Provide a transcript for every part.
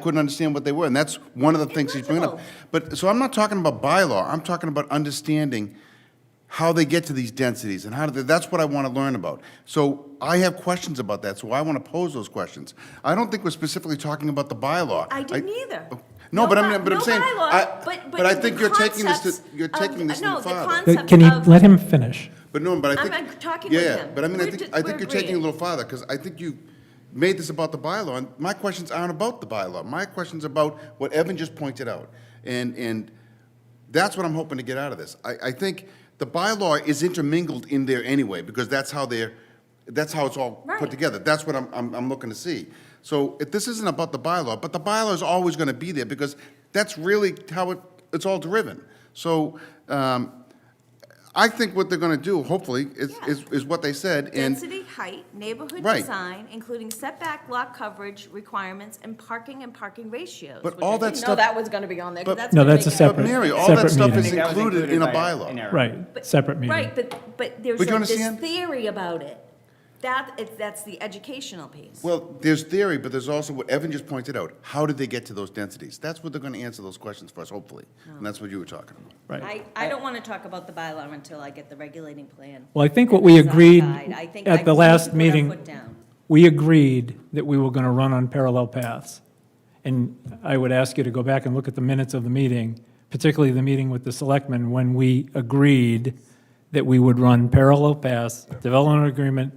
couldn't understand what they were, and that's one of the things he's bringing up. But, so I'm not talking about bylaw, I'm talking about understanding how they get to these densities, and how do they, that's what I want to learn about. So I have questions about that, so I want to pose those questions. I don't think we're specifically talking about the bylaw. I didn't either. No, but by- I'm, but I'm no saying, bylaw, I, but I the think you're taking this to, concepts you're of- taking this no, to the the father. con- But concept Can you of- let him finish? But no, but I I'm- think. I'm talking yeah, with yeah, him. But I mean, I We're think, just- I think we're you're taking it a agreeing. little farther, because I think you made this about the bylaw, and my questions aren't about the bylaw. My question's about what Evan just pointed out. And, and that's what I'm hoping to get out of this. I, I think the bylaw is intermingled in there anyway, because that's how they're, that's how it's all put Right. together. That's what I'm, I'm, I'm looking to see. So if this isn't about the bylaw, but the bylaw is always gonna be there, because that's really how it, it's all driven. So, um, I think what they're gonna do, hopefully, is, Yeah. is, is what they said, and, Density, height, neighborhood Right. design, including setback, lot coverage requirements, and parking and parking ratios. But which all I that didn't stuff- know that was gonna be on there, 'cause but- that's. No, gonna that's make a it- separate- but Mary, all that Separate stuff is meeting. That was included in a by an bylaw. error. Right, but- separate meeting. Right, but, but there's But you like this understand? theory about it. That, it- that's the educational piece. Well, there's theory, but there's also what Evan just pointed out, how did they get to those densities? That's what they're gonna answer those questions for us, hopefully, and that's what you were talking about. Right. I, I don't want to talk about the bylaw until I get the regulating plan. Well, I think what we Design agreed guide. I think I at the need to last put our meeting, foot down. we agreed that we were going to run on parallel paths. And I would ask you to go back and look at the minutes of the meeting, particularly the meeting with the selectmen, when we agreed that we would run parallel paths, development agreement,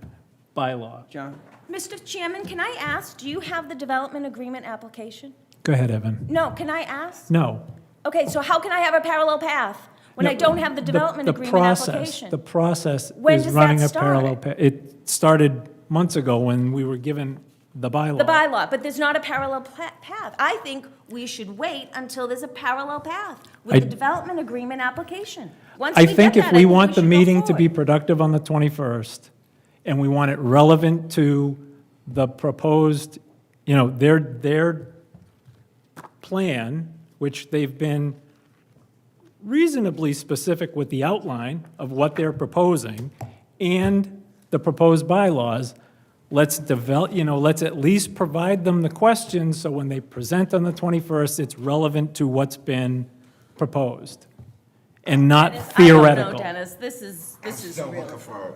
bylaw. John? Mr. Chairman, can I ask, do you have the development agreement application? Go ahead, Evan. No, can I ask? No. Okay, so how can I have a parallel path when I don't have the development agreement process- application? The process When is does that running a start? parallel. pa- It started months ago when we were given the bylaw. The bylaw, but there's not a parallel pla- path. I think we should wait until there's a parallel path I- with the development agreement application. Once I we get think if that, we want the should go meeting to be forward. productive on the 21st, and we want it relevant to the proposed, you know, their, their plan, which they've been reasonably specific with the outline of what they're proposing and the proposed bylaws, let's develop, you know, let's at least provide them the questions so when they present on the 21st, it's relevant to what's been proposed and not Dennis, I don't know, theoretical. Dennis, this is, this is Still looking real. for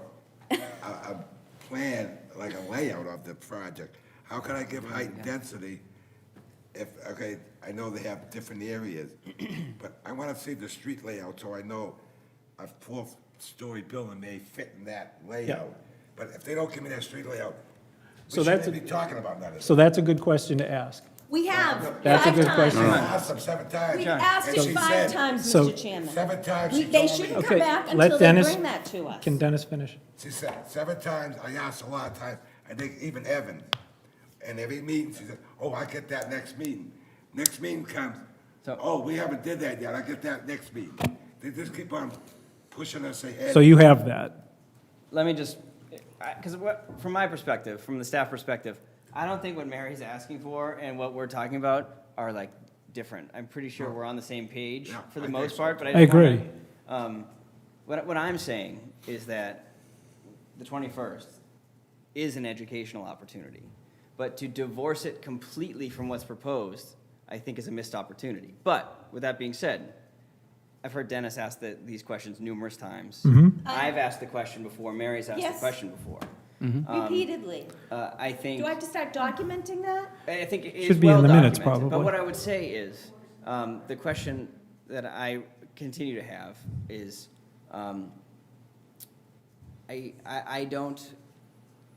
a, a plan, like a layout of the project. How can I give height and density if, okay, I know they have different areas, but I wanna see the street layout so I know a four-story building may fit in that layout. But if they don't give me that street layout, So we that's shouldn't a- be talking about that. So that's a good question to ask. We have. That's a good five question. times. I asked them seven times. We've asked and she it five said- times, So- Mr. Chairman. Seven times We- she They told me. shouldn't come Okay, back let until they Dennis- bring that to us. Can Dennis finish? She said seven times, I asked a lot of times, I think even Evan, and every meeting, she said, oh, I get that next meeting. Next meeting comes, So- oh, we haven't did that yet, I get that next meeting. They just keep on pushing us ahead. So you have that. Let me just, because what, from my perspective, from the staff perspective, I don't think what Mary's asking for and what we're talking about are like different. I'm pretty sure we're on the same page Yeah, for the I think most so. part, but I. I just wanna- agree. Um, what, what I'm saying is that the 21st is an educational opportunity, but to divorce it completely from what's proposed, I think is a missed opportunity. But with that being said, I've heard Dennis ask the, these questions numerous times. I've asked the question before. Mary's asked Uh, Yes. the question before. Repeatedly. Uh, I think. Do I have to start documenting that? I think it is Should be in well the minutes, documented, But probably. what I would say is, um, the question that I continue to have is, um, I, I, I don't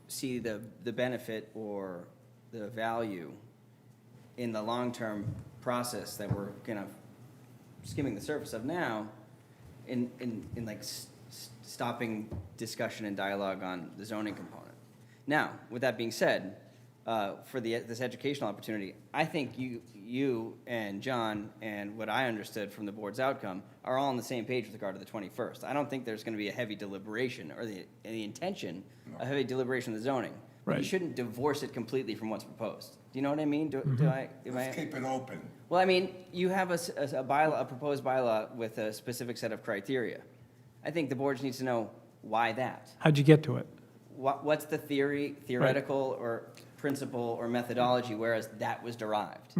see the, the benefit or the value in the long-term process that we're kind of skimming the surface of now in, in, in like s- s- stopping discussion and dialogue on the zoning component. Now, with that being said, uh, for the, this educational opportunity, I think you, you and John and what I understood from the board's outcome are all on the same page with regard to the twenty-first. I don't think there's gonna be a heavy deliberation or the, the intention, a heavy deliberation of the zoning. But You Right. shouldn't divorce it completely from what's proposed. Do you know what I mean? Do, do I, am I? Let's keep it open. Well, I mean, you have a, s- a s- a bylaw, a proposed bylaw with a specific set of criteria. I think the board just needs to know why that. How'd you get to it? What, what's the theory, theoretical or principle or methodology, whereas that was derived.